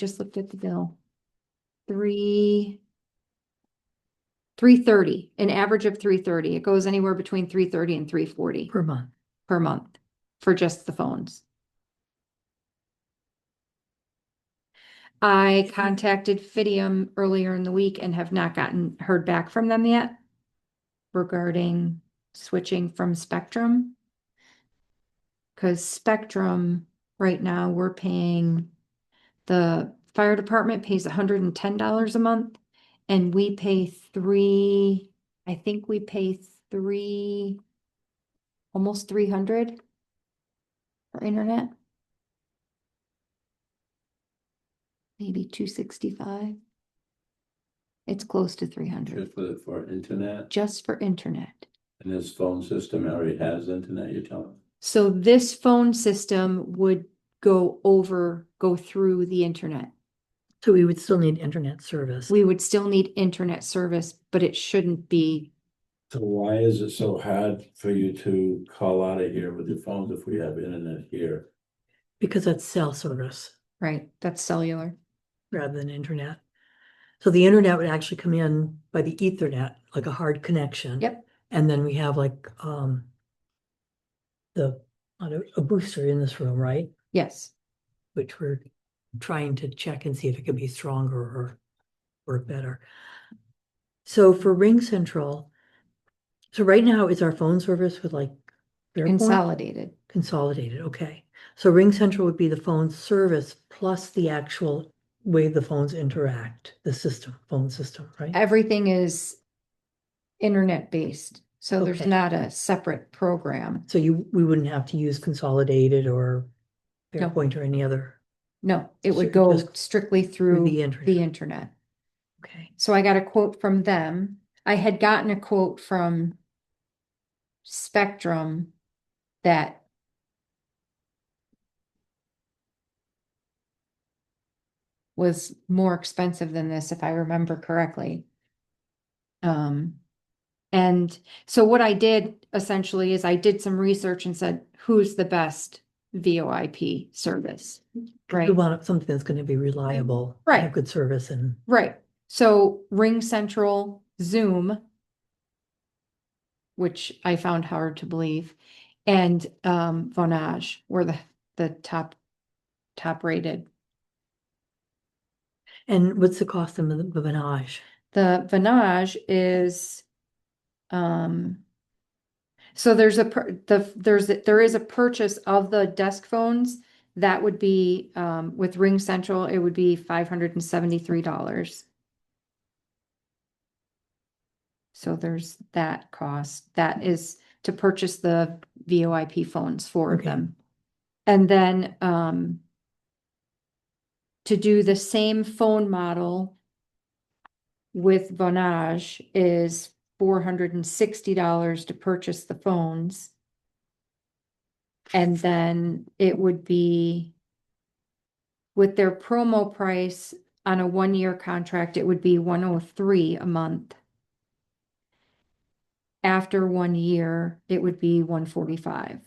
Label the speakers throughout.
Speaker 1: just looked at the bill. Three. Three thirty, an average of three thirty. It goes anywhere between three thirty and three forty
Speaker 2: per month.
Speaker 1: per month for just the phones. I contacted Fidium earlier in the week and have not gotten, heard back from them yet regarding switching from Spectrum. Because Spectrum, right now, we're paying, the fire department pays hundred and ten dollars a month, and we pay three, I think we pay three almost three hundred for internet. Maybe two sixty-five. It's close to three hundred,
Speaker 3: Just for, for internet,
Speaker 1: just for internet.
Speaker 3: and this phone system already has internet, you're telling? me?
Speaker 1: So this phone system would go over, go through the internet.
Speaker 2: So we would still need internet service.
Speaker 1: We would still need internet service, but it shouldn't be,
Speaker 3: So why is it so hard for you to call out of here with your phones if we have internet here?
Speaker 2: Because that's cell service
Speaker 1: right? That's cellular.
Speaker 2: rather than internet. So the internet would actually come in by the ethernet, like a hard connection.
Speaker 1: Yep.
Speaker 2: And then we have like, um, the, a booster in this room, right?
Speaker 1: Yes.
Speaker 2: which we're trying to check and see if it could be stronger or work better. So for Ring Central, so right now is our phone service with like Clearpoint?
Speaker 1: Consolidated.
Speaker 2: consolidated, okay. So Ring Central would be the phone service plus the actual way the phones interact, the system, phone system, right?
Speaker 1: Everything is internet based. So there's
Speaker 2: Okay.
Speaker 1: not a separate program.
Speaker 2: So you, we wouldn't have to use consolidated or
Speaker 1: No.
Speaker 2: Fairpoint or any other
Speaker 1: No, it
Speaker 2: So
Speaker 1: would
Speaker 2: it
Speaker 1: go
Speaker 2: just-
Speaker 1: strictly
Speaker 2: through
Speaker 1: through
Speaker 2: the
Speaker 1: the
Speaker 2: internet.
Speaker 1: internet.
Speaker 2: Okay,
Speaker 1: So I got a quote from them. I had gotten a quote from Spectrum that was more expensive than this, if I remember correctly. Um, and so what I did essentially is I did some research and said, who's the best VoIP service? Right.
Speaker 2: we want something that's gonna be reliable.
Speaker 1: Right.
Speaker 2: Have good service and
Speaker 1: Right. So Ring Central, Zoom, which I found hard to believe, and um, Vonage were the the top top rated.
Speaker 2: And what's the cost of the the menage?
Speaker 1: The Vonage is, um, so there's a pur- the there's a- there is a purchase of the desk phones that would be um, with Ring Central it would be five hundred and seventy three dollars. So there's that cost. That is to purchase the VoIP phones, four of
Speaker 2: Okay.
Speaker 1: them. And then um to do the same phone model with Vonage is four hundred and sixty dollars to purchase the phones. And then it would be with their promo price on a one-year contract, it would be one oh three a month after one year, it would be one forty-five.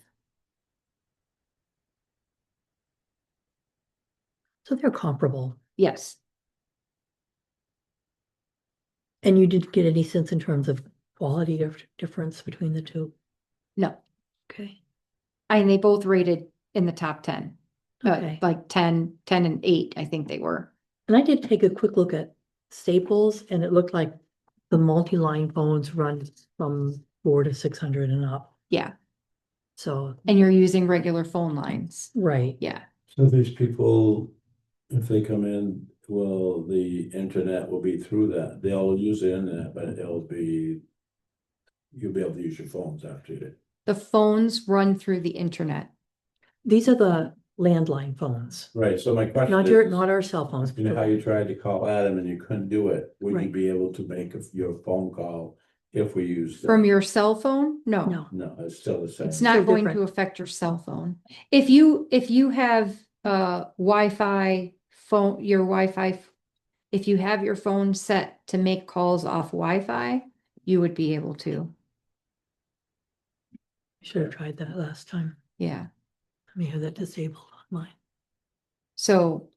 Speaker 2: So they're comparable.
Speaker 1: Yes,
Speaker 2: And you didn't get any sense in terms of quality dif- difference between the two?
Speaker 1: no,
Speaker 2: Okay.
Speaker 1: and they both rated in the top ten. uh,
Speaker 2: Okay.
Speaker 1: Like 10, 10 and eight, I think they were.
Speaker 2: And I did take a quick look at Staples and it looked like the multi-line phones run from four to six hundred and up.
Speaker 1: Yeah.
Speaker 2: So,
Speaker 1: And you're using regular phone lines.
Speaker 2: right,
Speaker 1: Yeah,
Speaker 3: So these people, if they come in, well, the internet will be through that, they'll use the internet, but it'll be. You'll be able to use your phones after it.
Speaker 1: the phones run through the internet.
Speaker 2: these are the landline phones,
Speaker 3: Right, so my question
Speaker 2: not your,
Speaker 3: is,
Speaker 2: not our cell phones.
Speaker 3: you know how
Speaker 2: but-
Speaker 3: you tried to call Adam and you couldn't do it, would you
Speaker 2: Right.
Speaker 3: be able to make a- your phone call if we use? the-
Speaker 1: From your cell phone? No,
Speaker 2: No,
Speaker 3: No, it's still the same.
Speaker 1: it's
Speaker 2: So
Speaker 1: not going to
Speaker 2: different.
Speaker 1: affect your cell phone. If you, if you have uh Wi-Fi phone, your Wi-Fi, if you have your phone set to make calls off Wi-Fi, you would be able to.
Speaker 2: I should have tried that last time.
Speaker 1: Yeah,
Speaker 2: Let me have that disabled on mine.
Speaker 1: so